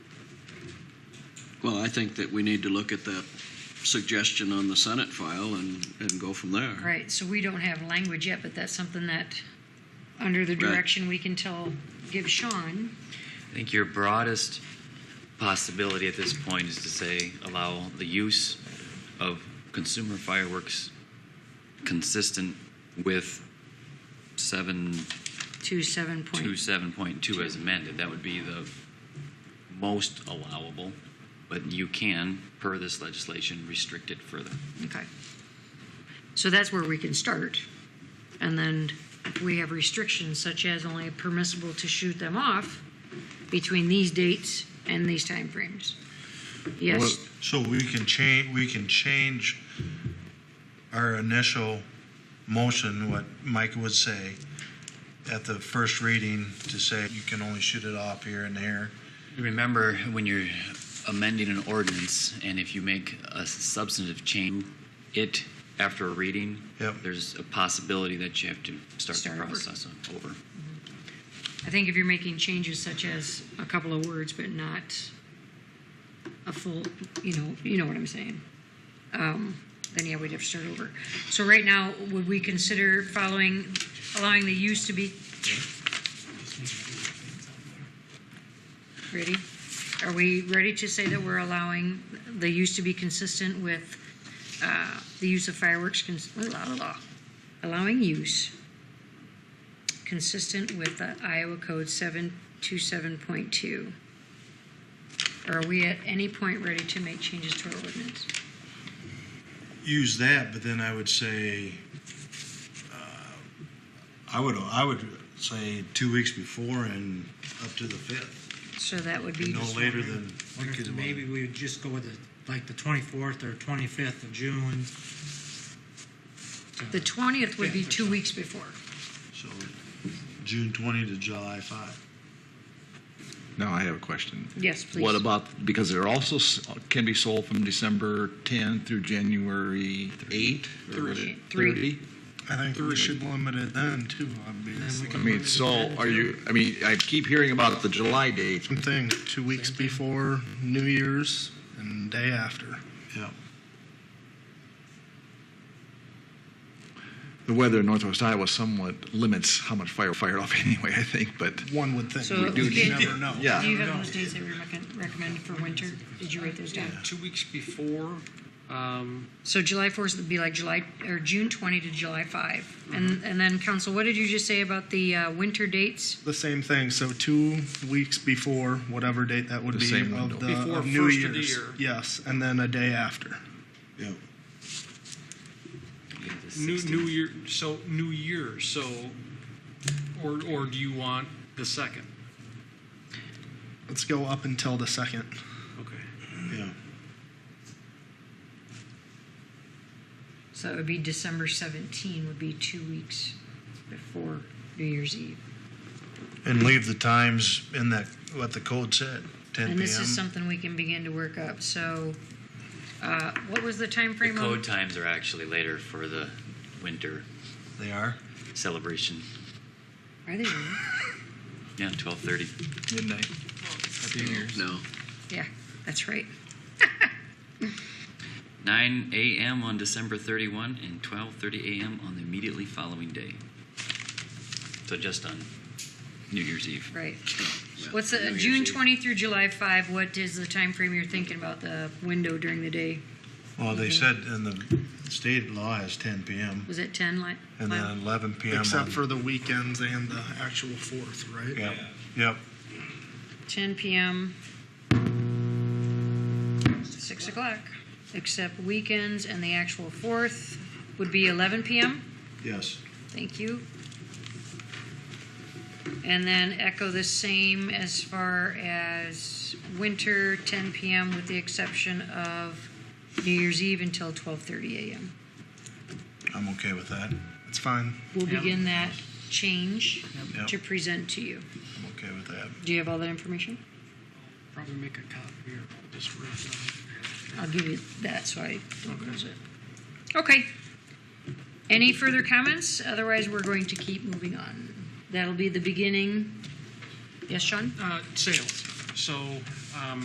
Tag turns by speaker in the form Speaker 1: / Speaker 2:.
Speaker 1: Well, I think that we need to look at that suggestion on the Senate file and, and go from there.
Speaker 2: Right, so we don't have language yet, but that's something that, under the
Speaker 1: Right.
Speaker 2: direction we can tell, give Sean.
Speaker 3: I think your broadest possibility at this point is to say allow the use of consumer fireworks consistent with seven
Speaker 2: to seven
Speaker 3: two
Speaker 2: point.
Speaker 3: seven point two as amended. That would be the most allowable, but you can, per this legislation, restrict it further.
Speaker 2: Okay. So that's where we can start. And then if we have restrictions such as only permissible to shoot them off between these dates and these timeframes. Yes,
Speaker 4: So we can change, we can change our initial motion, what Mike would say, at the first reading to say you can only shoot it off here and there.
Speaker 3: Remember, when you're amending an ordinance, and if you make a substantive change, it, after a reading,
Speaker 4: Yep.
Speaker 3: there's a possibility that you have to start the
Speaker 2: Start over.
Speaker 3: process over.
Speaker 2: I think if you're making changes such as a couple of words, but not a full, you know, you know what I'm saying. Um, Then yeah, we'd have to start over. So right now, would we consider following, allowing the use to be? Ready? Are we ready to say that we're allowing the use to be consistent with uh, the use of fireworks? cons- la, la, la. Allowing use consistent with the Iowa Code 727.2? Or Are we at any point ready to make changes to our ordinance?
Speaker 4: Use that, but then I would say, uh, I would, I would say two weeks before and up to the fifth,
Speaker 2: So that would be,
Speaker 4: no later than.
Speaker 5: Wonder if maybe we would just go with the, like, the 24th or 25th of June.
Speaker 2: the 20th would be
Speaker 5: Yeah, for
Speaker 2: two
Speaker 5: sure.
Speaker 2: weeks before.
Speaker 4: So June 20 to July 5.
Speaker 6: Now I have a question.
Speaker 2: Yes, please.
Speaker 6: What about, because they're also, s- can be sold from December 10 through January 8?
Speaker 2: Three. Three.
Speaker 6: 30?
Speaker 7: I think we should limit it then too, obviously.
Speaker 6: I mean, so are you, I mean, I keep hearing about the July date.
Speaker 7: Same thing, two weeks before New Year's and day after.
Speaker 4: Yeah.
Speaker 6: The weather in northwest Iowa somewhat limits how much fire fired off anyway, I think, but
Speaker 7: One would think,
Speaker 2: So
Speaker 7: but you
Speaker 2: again-
Speaker 7: never know.
Speaker 2: Do you
Speaker 6: yeah.
Speaker 2: have those dates that we recom- recommend for winter? Did you write those down?
Speaker 8: Two weeks before, um,
Speaker 2: So July 4th would be like July, or June 20 to July 5.
Speaker 4: Mm-hmm.
Speaker 2: And, and then, council, what did you just say about the uh, winter dates?
Speaker 7: The same thing, so two weeks before, whatever date that would
Speaker 6: The
Speaker 7: be.
Speaker 6: same
Speaker 7: of
Speaker 6: window.
Speaker 7: the-
Speaker 8: Before
Speaker 7: of New
Speaker 8: first of the
Speaker 7: Year's.
Speaker 8: year.
Speaker 7: Yes, and then a day after.
Speaker 4: Yeah.
Speaker 3: You have the
Speaker 8: New,
Speaker 3: 16th.
Speaker 8: New Year, so New Year, so, or, or do you want the second?
Speaker 7: Let's go up until the second.
Speaker 8: Okay.
Speaker 4: Yeah.
Speaker 2: So it would be December 17 would be two weeks before New Year's Eve.
Speaker 4: And leave the times in that, what the code said, 10 p.m.
Speaker 2: And this is something we can begin to work up. So, uh, what was the
Speaker 3: The
Speaker 2: timeframe
Speaker 3: code
Speaker 2: on?
Speaker 3: times are actually later for the winter
Speaker 4: They are?
Speaker 3: celebration.
Speaker 2: Are they? really?
Speaker 3: Yeah, 12:30.
Speaker 6: Midnight. Happy New Year's.
Speaker 1: No.
Speaker 2: Yeah, that's right.
Speaker 3: 9 a.m. on December 31 and 12:30 a.m. on the immediately following day. So just on New Year's Eve.
Speaker 2: Right. What's
Speaker 1: New
Speaker 2: the,
Speaker 1: Year's
Speaker 2: June
Speaker 1: Eve.
Speaker 2: 20 through July 5, what is the timeframe you're thinking about the window during the day?
Speaker 4: Well, they said in the state law is 10 p.m.
Speaker 2: Was it 10? Like,
Speaker 4: and then 11 p.m.
Speaker 7: Except
Speaker 4: on-
Speaker 7: for the weekends and the actual fourth, right?
Speaker 4: Yep. Yep.
Speaker 2: 10 p.m. 6 o'clock, except weekends and the actual 4th would be 11 p.m.?
Speaker 4: Yes.
Speaker 2: Thank you. And then echo the same as far as winter, 10 PM with the exception of New Year's Eve until 12:30 AM.
Speaker 4: I'm okay with that.
Speaker 7: It's fine.
Speaker 2: We'll
Speaker 8: Yeah.
Speaker 2: begin that change
Speaker 4: Yep.
Speaker 2: to present to you.
Speaker 4: I'm okay with that.
Speaker 2: Do you have all that information?
Speaker 8: Probably make a copy here. Just real time.
Speaker 2: I'll give you that so I don't lose it. Okay. Any further comments? Otherwise, we're going to keep moving on. That'll be the beginning. Yes, Sean?
Speaker 8: Uh, sales. So, um,